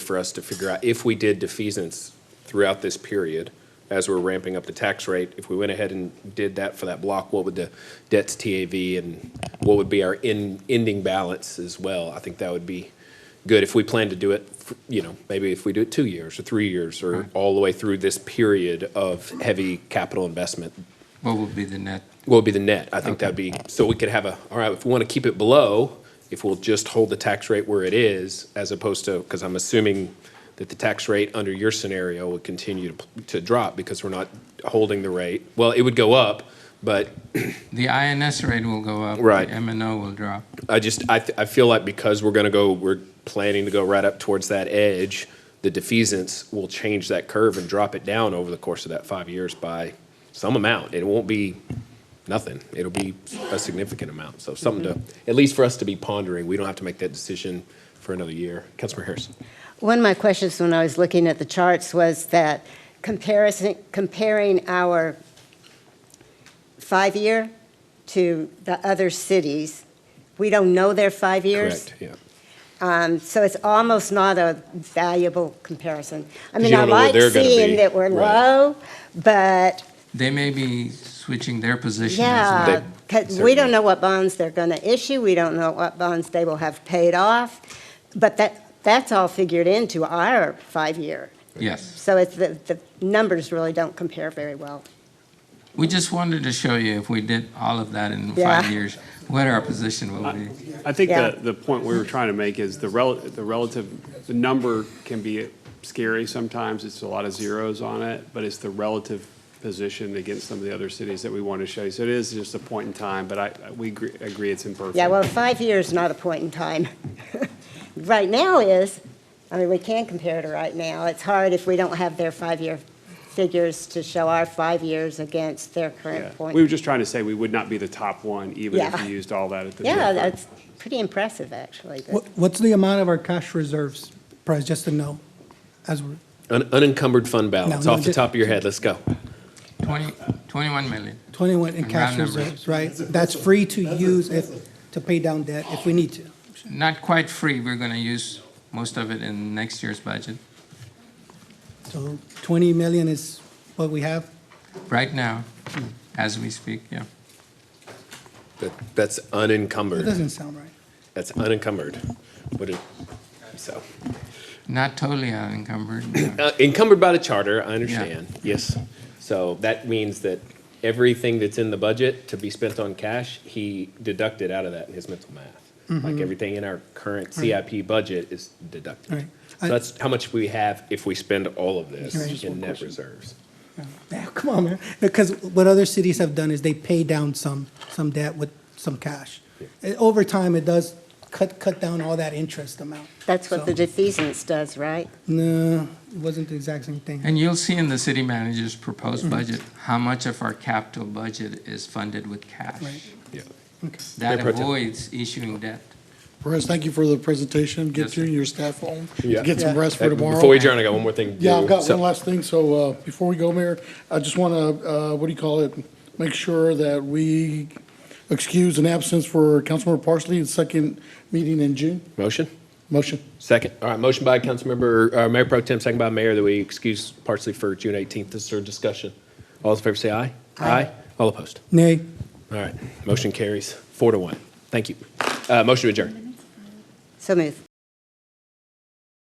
for us to figure out if we did defeasance throughout this period as we're ramping up the tax rate, if we went ahead and did that for that block, what would the debt's TAV and what would be our end, ending balance as well? I think that would be good if we plan to do it, f- you know, maybe if we do it two years or three years or all the way through this period of heavy capital investment, What would be the net? what would be the net? I think that'd be, so we could have a, all right, if we want to keep it below, if we'll just hold the tax rate where it is, as opposed to, because I'm assuming that the tax rate under your scenario would continue to, to drop because we're not holding the rate. Well, it would go up, but The INS rate will go up. Right. The MNO will drop. I just, I, th- I feel like because we're gonna go, we're planning to go right up towards that edge, the defeasance will change that curve and drop it down over the course of that five years by some amount. It won't be nothing. It'll be a significant amount. So something to, Mm-hmm. at least for us to be pondering. We don't have to make that decision for another year. Councilmember Harrison. One of my questions when I was looking at the charts was that comparison, comparing our five-year to the other cities, we don't know their five years. Correct, yeah. Um, So it's almost not a valuable comparison. I mean, you I don't know where like they're gonna be. seeing that we're Right. low, but They may be switching their position. as well. yeah, because we certainly. don't know what bonds they're going to issue, we don't know what bonds they will have paid off, but that, that's all figured into our five-year. Yes. So it's, the, the numbers really don't compare very well. We just wanted to show you if we did all of that in Yeah. five years, what our position will be. I think Yeah. the, the point we were trying to make is the rel, the relative, the number can be scary sometimes. It's a lot of zeros on it, but it's the relative position against some of the other cities that we want to show you. So it is just a point in time, but I, I- we agree, agree it's imperfect. Yeah, well, five years is not a point in time. Right now is, I mean, we can compare it to right now. It's hard if we don't have their five-year figures to show our five years against their Yeah. current We were point. just trying to say we would not be the top one, even if Yeah. you used all that at the. Yeah, time. that's pretty impressive, actually. but- What, what's the amount of our cash reserves, Price, just to know, as we're, Un- unencumbered fund balance, no, off the ju- top of your head, let's go. 20, 21 million. twenty-one in Round cash numbers. reserves, right? That's free to use if, to pay down debt if we need to. Not quite free. We're going to use most of it in next year's budget. So twenty million is what we have? Right now, as we speak, yeah. That, that's That unencumbered. doesn't sound right. That's unencumbered. What it, so, Not totally unencumbered. no. Uh, encumbered by the charter, I understand, yes. So that means that everything that's in the budget to be spent on cash, he deducted out of that in his mental math. Like everything in our current CIP budget is All deducted. right. So that's how much we have if we spend all of Can I this just in one net question? reserves. Yeah, come on, man. Because what other cities have done is they pay down some, some debt with some cash. Uh, Over time, it does cut, cut down all that interest amount. That's what the defeasance does, right? No, it wasn't the exact same thing. And you'll see in the city manager's proposed Mm-hmm. budget, how much of our capital budget is funded with cash. Right. Yeah. That Mayor Pro Tem. avoids issuing debt. Perez, thank you for the presentation. Yes, Get sir. you and your staff home. Yeah. Get some rest for tomorrow. Before we adjourn, I got one more thing. to Yeah, do. I've got So- one last thing, so uh, before we go, Mayor, I just want to, what do you call it, make sure that we excuse an absence for Councilmember Parsley, his second meeting in June. Motion, Motion. second. All right, motion by Councilmember, uh, Mayor Pro Tem, second by Mayor, that we excuse Parsley for June eighteenth. This is our discussion. All those in favor say aye. Aye. All opposed? Nay. All right, motion carries four to one. Thank you. Uh, Motion to adjourn. So move.